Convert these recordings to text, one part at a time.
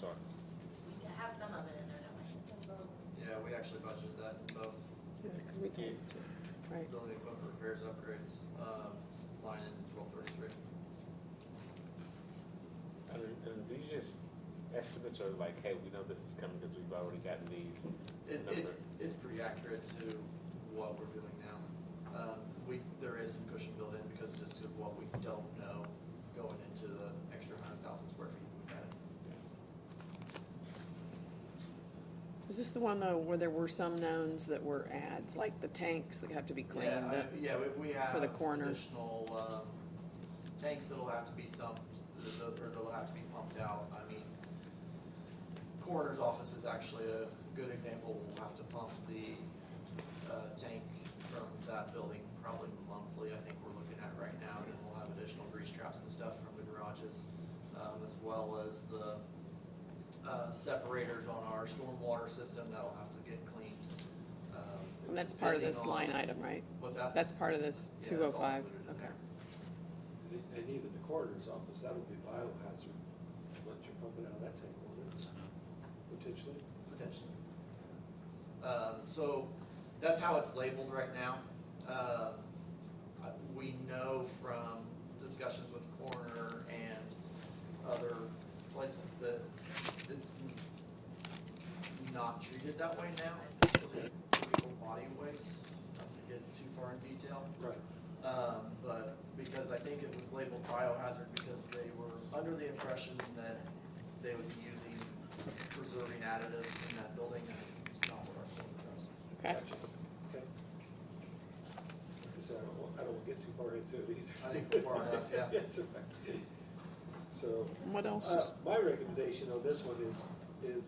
sorry. We have some of it in there, don't we? Yeah, we actually budgeted that in both Yeah, 'cause we did, right. building equipment repairs upgrades, um, line in twelve thirty-three. And, and these just estimates are like, hey, we know this is coming because we've already gotten these. It, it's, it's pretty accurate to what we're doing now. Um, we, there is some cushion built in because just of what we don't know going into the extra hundred thousand square feet we've added. Is this the one though where there were some knowns that were ads, like the tanks that have to be cleaned Yeah, I- up? Yeah, we, we have the corner. additional, um, tanks that'll have to be sumped, th- th- or that'll have to be pumped out, I mean, coroner's office is actually a good example, we'll have to pump the, uh, tank from that building probably monthly, I think we're looking at right now, and then we'll have additional grease traps and stuff from the garages, um, as well as the, uh, separators on our stormwater system, that'll have to get cleaned, um. And that's part of this depending on- line item, right? What's that? That's part of this Yeah, two oh that's all five, included in okay. there. And and even the coroner's office, that would be biohazard, what you're pumping out of that tank, wouldn't it? Uh-huh. Potentially. Potentially. Um, so that's how it's labeled right now. Um, I- we know from discussions with coroner and other places that it's n- not treated that way now. It's just typical body waste, not to get too far in detail. Right. Um, but because I think it was labeled biohazard because they were under the impression that they would be using preserving additives in that building and it's not what our code addresses. Okay, Okay. Because I don't, want- I don't wanna get too far into it either. I think we're far enough, yeah. It's okay. So, And what else? uh, my recommendation on this one is, is,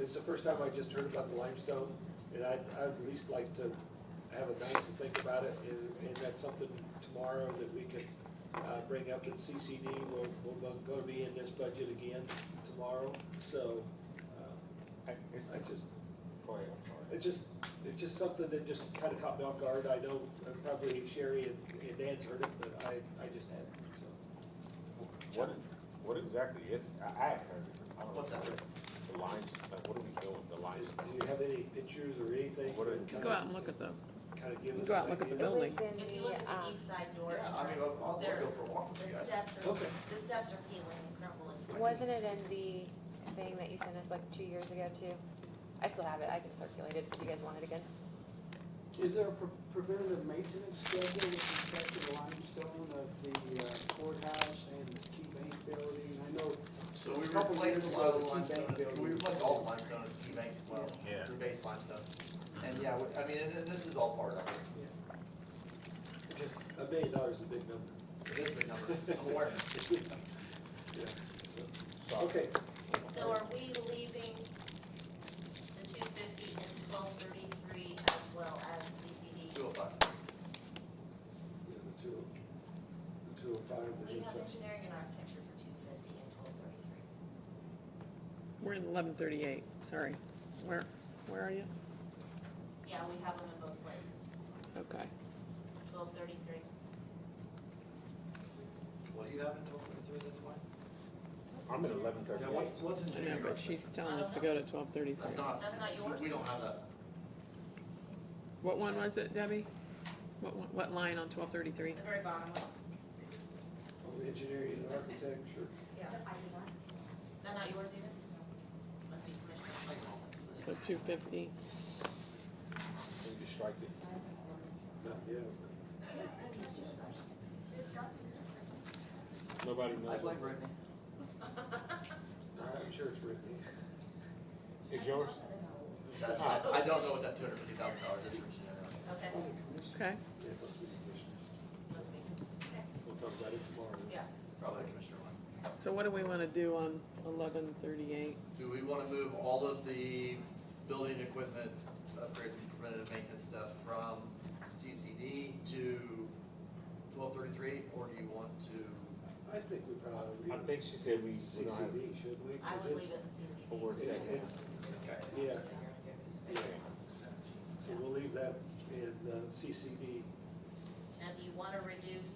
it's the first time I just heard about the limestone, and I'd, I'd at least like to have a night to think about it, and, and that's something tomorrow that we could, uh, bring up at CCD, we'll, we're gonna be in this budget again tomorrow, so, uh, I, it's I just, Go ahead, I'm sorry. it just, it's just something that just kind of caught me off guard. I know uh, probably Sherry and, and Dan's heard it, but I, I just hadn't, so. What, what exactly is, I, I haven't heard it. I don't know. What's that? The lines, like, what are we doing, with the lines? Do you have any pictures or anything? What are- that kinda- Go out and look at the, Kind of give us. Go out and look at an the idea? building. It was in If you the, look at the um, east side door Yeah, I mean, entrance, I'll, I'll there, go for a walk the with you guys. steps are, Okay. the steps are peeling and crumbling. Wasn't it in the thing that you sent us like two years ago too? I still have it, I can circulate it if you guys want it again. Is there a pre- preventative maintenance schedule with respect to the limestone of the uh, courthouse and the key bank building? I know, So we A couple replaced a years lot of the ago, the key limestone, bank we building. replaced all the limestone at the key bank as well, Yeah. through base limestone. And yeah, we- I mean, and and this is all part of it, Just A million dollars is a big number. it is the number, I'm aware. Yeah, so, Sorry. okay. So are we leaving the two fifty and twelve thirty-three as well as CCD? Two oh five. Yeah, the two, the two oh five, the We new have section. engineering and architecture for two fifty and twelve thirty-three. we're in eleven thirty-eight, sorry. Where, where are you? Yeah, we have them in both places, Okay. twelve thirty-three. What do you have in total for three, that's why? I'm at eleven Yeah, what's, thirty-eight. what's I know, engineering? but she's telling us to go to twelve That's thirty-three. not, That's not yours? we don't have that. What one was it, Debbie? What, one- what line on twelve thirty-three? The very bottom one. Oh, Engineering and architecture. Yeah. Is that not yours either? Must be commissioner's. So two fifty, Can you strike this? No, yeah. Nobody knows. blame Brittany. I'm sure it's written. Is yours? I I don't know what that two hundred fifty thousand dollar description is. Okay, okay. Yeah, it must be commissioners. must be, We'll talk about it tomorrow. yeah. Probably the commissioner one. So what do we wanna do on eleven thirty-eight? Do we wanna move all of the building equipment upgrades and preventative maintenance stuff from CCD to twelve thirty-three, or do you want to? I think we probably. I think she said we, we don't have. CCD, should we? I 'Cause would leave it's- it in Or- CCD. Yeah, it's, Okay. yeah, so we'll leave that in uh, CCD. Now, do you wanna reduce